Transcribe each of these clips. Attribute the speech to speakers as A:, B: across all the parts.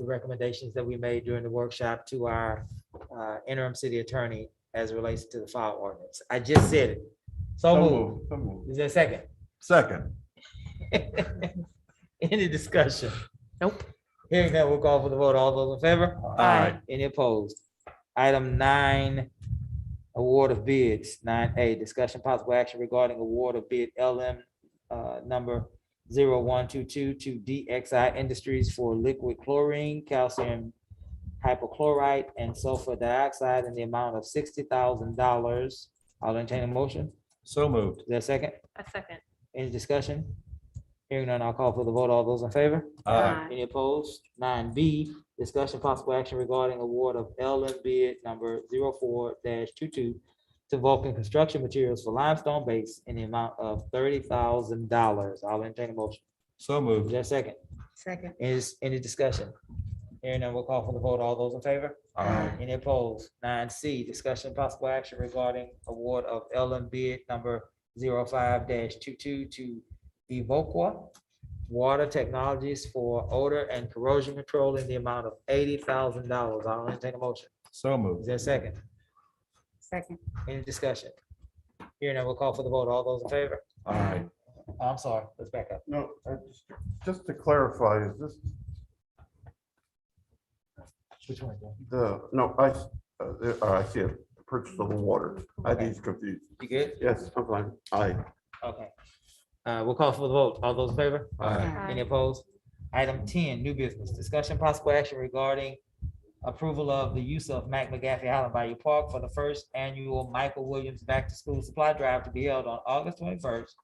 A: the recommendations that we made during the workshop to our uh, interim city attorney as it relates to the file ordinance. I just said it. So
B: So
A: moved.
B: moved, so moved.
A: Is there a second?
B: Second,
A: Any discussion? Nope. Hearing that, we'll call for the vote. All those in favor?
B: Aye.
A: Any opposed? Item nine, award of bids, nine A, discussion possible action regarding award of bid LM uh, number zero one two two to DXI Industries for liquid chlorine, calcium hypochlorite, and sulfur dioxide in the amount of sixty thousand dollars. I'll entertain a motion.
B: so moved.
A: Is there a second?
C: A second.
A: Any discussion? Hearing none, I'll call for the vote. All those in favor?
B: Aye.
A: Any opposed? Nine B, discussion possible action regarding award of LM bid number 4 22 to Vulcan Construction Materials for limestone base in the amount of thirty thousand dollars. I'll entertain a motion.
B: So
A: Is
B: moved.
A: there a second?
C: Second.
A: Is any discussion? Hearing none, we'll call for the vote. All those in favor?
B: Aye.
A: Any opposed? Nine C, discussion possible action regarding award of LM bid number 5 22 to Evoqua Water Technologies for odor and corrosion control in the amount of eighty thousand dollars. I'll entertain a motion.
B: So
A: Is
B: moved.
A: there a second?
C: Second.
A: Any discussion? Hearing none, we'll call for the vote. All those in favor? Oh,
B: Aye.
A: I'm sorry, let's back up.
D: No, I just- just to clarify, is this
A: Which one? Joe?
D: the, no, I, s- uh, there- oh, I see it, purchase of the water. I
A: Okay.
D: was confused.
A: You good?
D: Yes, I'm fine. Aye.
A: Okay. Uh, we'll call for the vote. All those in favor?
B: Aye.
A: Any opposed? Item ten, new business, discussion possible action regarding approval of the use of Mac McGaffey Island Bayou Park for the first annual Michael Williams Back to School Supply Drive to be held on August twenty-first,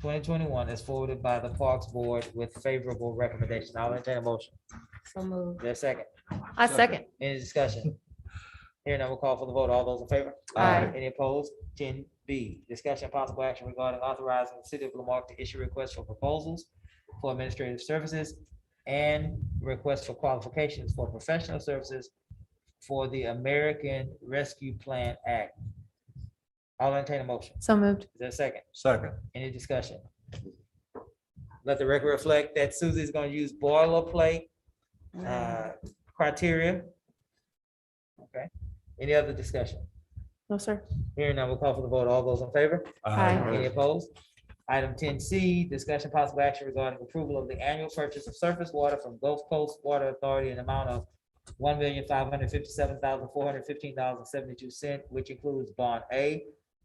A: twenty twenty-one, as forwarded by the Parks Board with favorable recommendation. I'll entertain a motion.
C: So moved.
A: Is there a second?
C: A second.
A: Any discussion? Here now, we'll call for the vote. All those in favor?
C: Aye.
A: Any opposed? Ten B, discussion and possible action regarding authorizing the city of Lamarck to issue requests for proposals for administrative services and requests for qualifications for professional services for the American Rescue Plan Act. I'll entertain a motion.
C: So moved.
A: Is there a second?
B: Second,
A: Any discussion? Let the record reflect that Susie's gonna use boilerplate uh, criteria. Okay, any other discussion?
C: No, sir.
A: Hearing none, we'll call for the vote. All those in favor?
B: aye,
C: Aye.
A: Any opposed? Item ten C, discussion possible action regarding approval of the annual purchase of surface water from Gulf Coast Water Authority in the amount of one million five hundred fifty-seven thousand four hundred fifteen dollars and seventy-two cent, which includes bond A,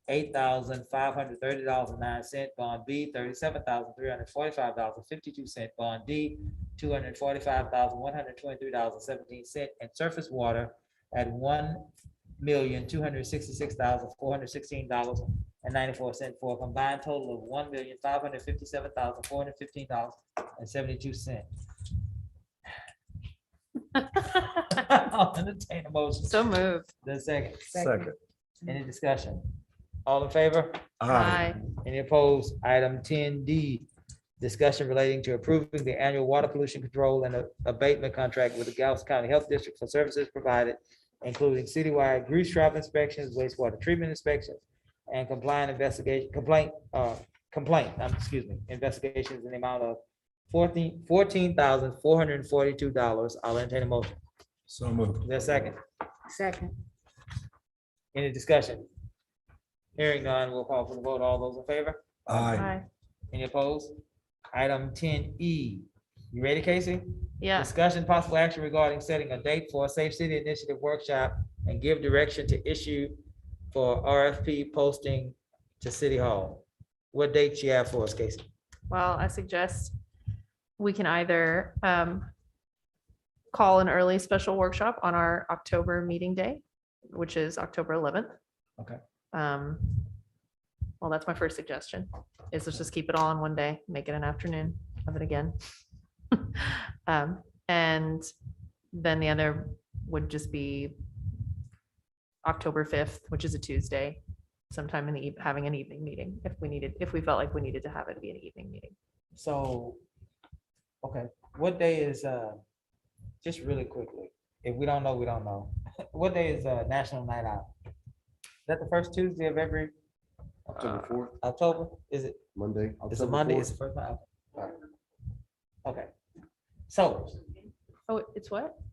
A: eight thousand five hundred thirty dollars and nine cent, bond B, thirty-seven thousand three hundred forty-five dollars and fifty-two cent, bond D, two hundred forty-five thousand one hundred twenty-three dollars and seventeen cent, and surface water at one million two hundred sixty-six thousand four hundred sixteen dollars and ninety-four cent for a combined total of one million, five hundred fifty-seven thousand, four hundred fifteen dollars and seventy-two cent. I'll entertain a motion.
C: So moved.
A: The second,
B: second.
A: any discussion? All in favor?
B: Aye.
A: Any opposed? Item ten D, discussion relating to approving the annual water pollution control and abatement contract with the Galveston County Health District for services provided, including citywide grease trap inspections, wastewater treatment inspections, and compliant investigation, complaint, uh, complaint, um, excuse me, investigations in the amount of fourteen, fourteen thousand, four hundred and forty-two dollars. I'll entertain a motion.
B: So moved.
A: Is there a second?
C: Second.
A: Any discussion? Hearing none, we'll call for the vote. All those in favor?
B: Aye.
A: Any opposed? Item ten E. You ready, Casey?
C: Yeah.
A: Discussion possible action regarding setting a date for a Safe City Initiative workshop and give direction to issue for RFP posting to City Hall. What date you have for us, Casey?
C: Well, I suggest we can either um, call an early special workshop on our October meeting day, which is October 11th.
A: Okay.
C: Um, Well, that's my first suggestion, is let's just keep it all in one day, make it an afternoon of it again. Um, And then the other would just be October 5th, which is a Tuesday, sometime in the, eve- having an evening meeting if we needed, if we felt like we needed to have it be an evening meeting.
A: So, okay, what day is, uh, just really quickly, if we don't know, we don't know. What day is, uh, National Night Out? Is that the first Tuesday of every
D: October fourth,
A: October? Is it?
D: Monday.
A: It's a Monday, it's the first night. Okay. So,
C: Oh, it's what?